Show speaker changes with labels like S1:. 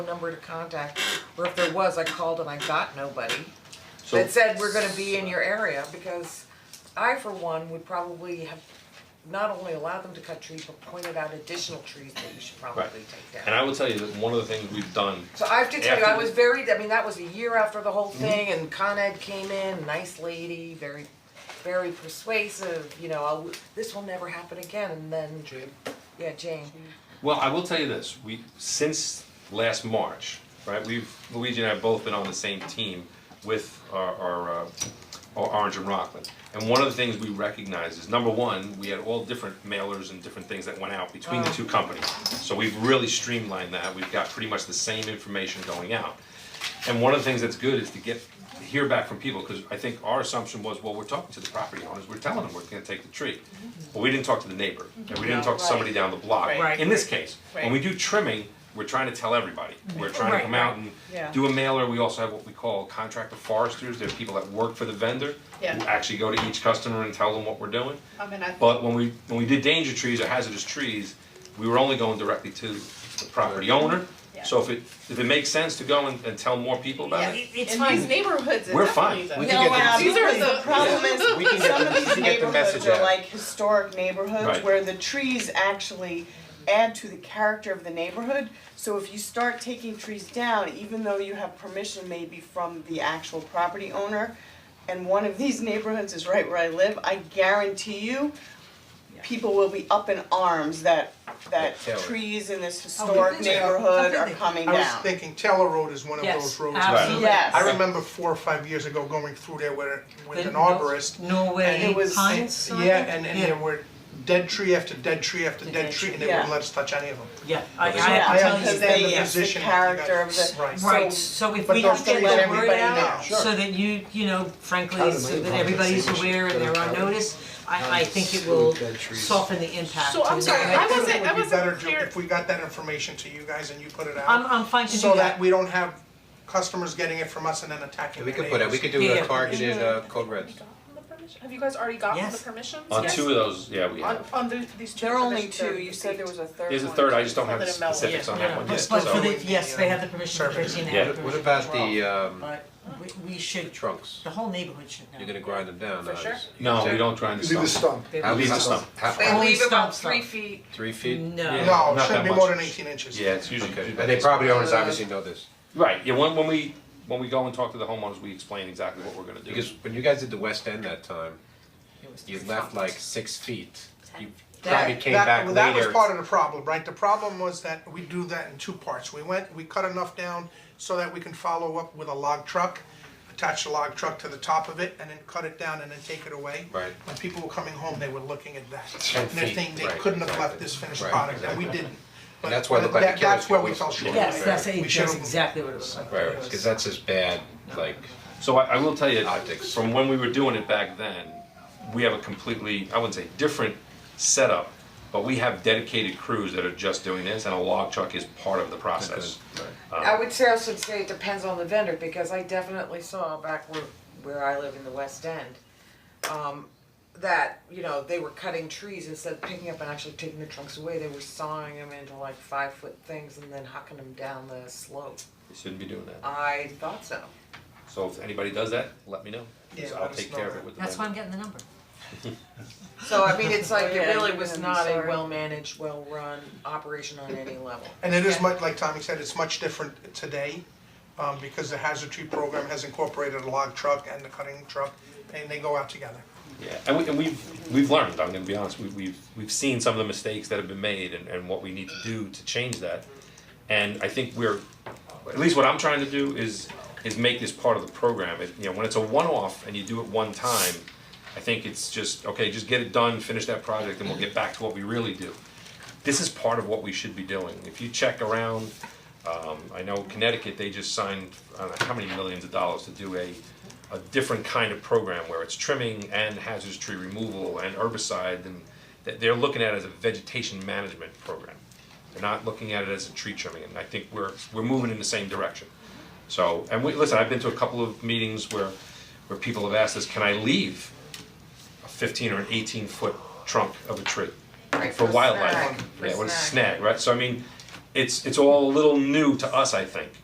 S1: number to contact, or if there was, I called and I got nobody
S2: So-
S1: that said we're gonna be in your area, because I for one would probably have not only allowed them to cut trees, but pointed out additional trees that you should probably
S2: Right.
S1: take
S2: And
S1: down.
S2: I will tell you that one of the things we've done,
S1: So I have to tell you, I
S2: After- Mm-hmm.
S1: was very, I mean, that was a year after the whole thing, and Con Ed came in, nice lady, very, very persuasive, you know, I'll, this will never happen again, and then, yeah, Jane,
S2: well, I will tell you this, we, since last March, right, we've, Luigi and I have both been on the same team with our, our, uh, our Orange and Rockland. And one of the things we recognize is, number one, we had all different mailers and different things that went out between the
S1: Oh.
S2: two companies. So we've really streamlined that, we've got pretty much the same information going out. And one of the things that's good is to get, to hear back from people, cause I think our assumption was, well, we're talking to the property owners, we're telling them we're gonna take the tree. But we didn't talk to the neighbor, and we didn't talk to somebody down the block,
S1: Right.
S2: in this case. When we
S1: Right.
S2: do trimming, we're trying to tell everybody, we're trying to
S1: Right,
S2: come out
S1: right.
S2: and
S1: Yeah.
S2: do a mailer, we also have what we call contractor foresters, they're people that work for the vendor. Who
S3: Yeah.
S2: actually go to each customer and tell them what we're doing.
S3: I mean, I,
S2: But when we, when we did danger trees or hazardous trees, we were only going directly to the property owner. So if it, if it makes sense to go and, and tell more people about
S3: yeah,
S2: it,
S3: in these neighborhoods, it
S2: We're fine.
S3: definitely is a-
S4: We
S5: No, um,
S4: can get
S3: These are the
S5: absolutely. problem is,
S4: We can get
S5: some
S4: the-
S5: of
S4: we
S5: these
S4: can get the message
S5: neighborhoods are
S4: out.
S5: like historic neighborhoods
S2: Right.
S5: where the trees actually add to the character of the neighborhood. So if you start taking trees down, even though you have permission maybe from the actual property owner, and one of these neighborhoods is right where I live, I guarantee you, people will be up in arms that, that
S2: Tell it.
S5: trees in this
S1: Oh,
S5: historic
S1: we did.
S5: neighborhood
S1: Something
S5: are
S1: that-
S5: coming
S4: I
S5: down.
S4: was thinking Taylor Road is one of
S6: Yes,
S4: those roads.
S6: absolutely.
S5: Yes.
S4: I remember four or five years ago going through there with, with
S6: The
S4: an arborist. and
S6: Norway
S5: it was-
S6: pines.
S4: Yeah, and, and there were dead tree after dead tree after dead tree, and they wouldn't
S5: Yeah.
S4: let us touch any of them.
S6: Yeah, I I
S2: Well,
S6: have
S5: I
S6: to tell
S5: because
S6: you,
S4: understand
S5: they-
S6: they,
S4: the
S6: yeah.
S5: yes.
S4: position
S5: The
S4: that you got-
S5: character of the-
S4: Right.
S6: Right,
S5: So-
S6: so if
S4: but
S6: we
S4: those
S6: can get
S4: things let
S6: the word
S4: everybody
S6: out,
S4: know.
S6: so that you, you know, frankly, so that everybody's aware and they're on notice, I, I think it will soften the impact
S3: So I'm
S6: to
S3: sorry,
S6: the-
S3: I wasn't-
S4: think
S3: I wasn't
S4: It would be better,
S3: clear-
S4: Joe, if we got that information to you guys and you put it out.
S6: I'm, I'm fine to do
S4: So that we don't have customers getting it from us and then attacking
S7: We
S4: their
S7: could put it, we
S4: neighbors.
S7: could do
S6: Yeah.
S7: a targeted uh code reds.
S3: Have you guys already gotten the
S6: Yes.
S3: permissions?
S2: on two of those, yeah, we
S3: On,
S2: have.
S3: on the, these two.
S5: There are only
S3: permissions, they're
S5: two, you said there was a third one.
S2: There's a third, I just don't have the
S3: Something about-
S2: specifics on that one
S6: But
S2: yet,
S6: but for
S2: so-
S6: the, yes, they have the permission for thirteen, they have the
S2: Yeah.
S7: What
S6: permission
S7: about
S6: for all.
S7: the um
S6: But we, we should,
S7: trunks?
S6: the whole neighborhood should know.
S7: You're gonna grind them down,
S3: For
S7: uh,
S3: sure.
S7: is-
S2: No, we
S7: is
S2: don't try and
S8: Leave the
S2: stump.
S8: stump.
S6: They
S7: that- How
S6: will-
S7: leave the
S8: Leave the
S7: stump, how,
S1: they
S7: how-
S6: Only
S1: leave about
S6: stump,
S1: three
S6: stump.
S1: feet,
S7: three feet?
S2: Yeah.
S6: No,
S4: No,
S2: Not
S4: it shouldn't
S2: that
S4: be more
S2: much.
S4: than eighteen inches.
S2: Yeah, it's usually.
S7: Okay, and they property owners obviously know this,
S2: Right, yeah, when, when we, when we go and talk to the homeowners, we explain exactly what we're gonna do.
S7: because when you guys did the West End that time,
S6: It was
S7: you
S6: three
S7: left
S6: feet.
S7: like six feet. You
S4: That-
S7: probably came
S4: that-
S7: back
S4: well,
S7: later.
S4: That was part of the problem, right? The problem was that we do that in two parts. We went, we cut enough down so that we can follow up with a log truck, attach the log truck to the top of it, and then cut it down and then take it away.
S7: Right.
S4: When people were coming home, they were looking at that.
S7: 10
S4: And they're
S7: feet,
S4: thinking they
S7: right,
S4: couldn't have left
S7: exactly.
S4: this finished
S7: Right,
S4: product, and we didn't. But
S7: that's why it looked like a
S4: that-
S7: killer's
S4: That's where we
S7: field.
S4: fell short.
S6: Yes, that's,
S4: We
S6: that's
S4: should've-
S6: exactly what it was like.
S7: Right, because that's as bad, like,
S2: So I, I will tell you,
S7: Optics.
S2: from when we were doing it back then, we have a completely, I wouldn't say different setup, but we have dedicated crews that are just doing this, and a log truck is part of the process.
S1: I would say, I should say it depends on the vendor, because I definitely saw back where, where I live in the West End, um, that, you know, they were cutting trees instead of picking up and actually taking the trunks away, they were sawing them into like five foot things and then hucking them down the slope.
S2: We shouldn't be doing that.
S1: I thought so.
S2: So if anybody does that, let me know, 'cause
S4: Yeah,
S2: I'll
S4: let us
S2: take
S4: know
S2: care of
S4: that.
S2: it with the
S6: That's why I'm
S2: vendor.
S6: getting the number.
S1: So I mean, it's like, it
S5: Yeah,
S1: really
S5: you're
S1: was
S5: gonna be
S1: not a
S5: sorry.
S1: well-managed, well-run operation on any level.
S4: And it is much, like Tommy said, it's much different today, um, because the hazard tree program has incorporated a log truck and the cutting truck, and they go out together.
S2: Yeah, and we, and we've, we've learned, I'm gonna be honest, we, we've, we've seen some of the mistakes that have been made and, and what we need to do to change that. And I think we're, at least what I'm trying to do is, is make this part of the program, it, you know, when it's a one-off and you do it one time, I think it's just, okay, just get it done, finish that project, and we'll get back to what we really do. This is part of what we should be doing, if you check around, um, I know Connecticut, they just signed, I don't know how many millions of dollars to do a, a different kind of program where it's trimming and hazardous tree removal and herbicide and that they're looking at it as a vegetation management program. They're not looking at it as a tree trimming, and I think we're, we're moving in the same direction. So, and we, listen, I've been to a couple of meetings where, where people have asked us, can I leave a fifteen or an eighteen foot trunk of a tree?
S1: Right,
S2: for
S1: for a
S2: wildlife.
S1: snag, for a
S2: Yeah, what is a
S1: snag.
S2: snag, right? So I mean, it's it's all a little new to us, I think.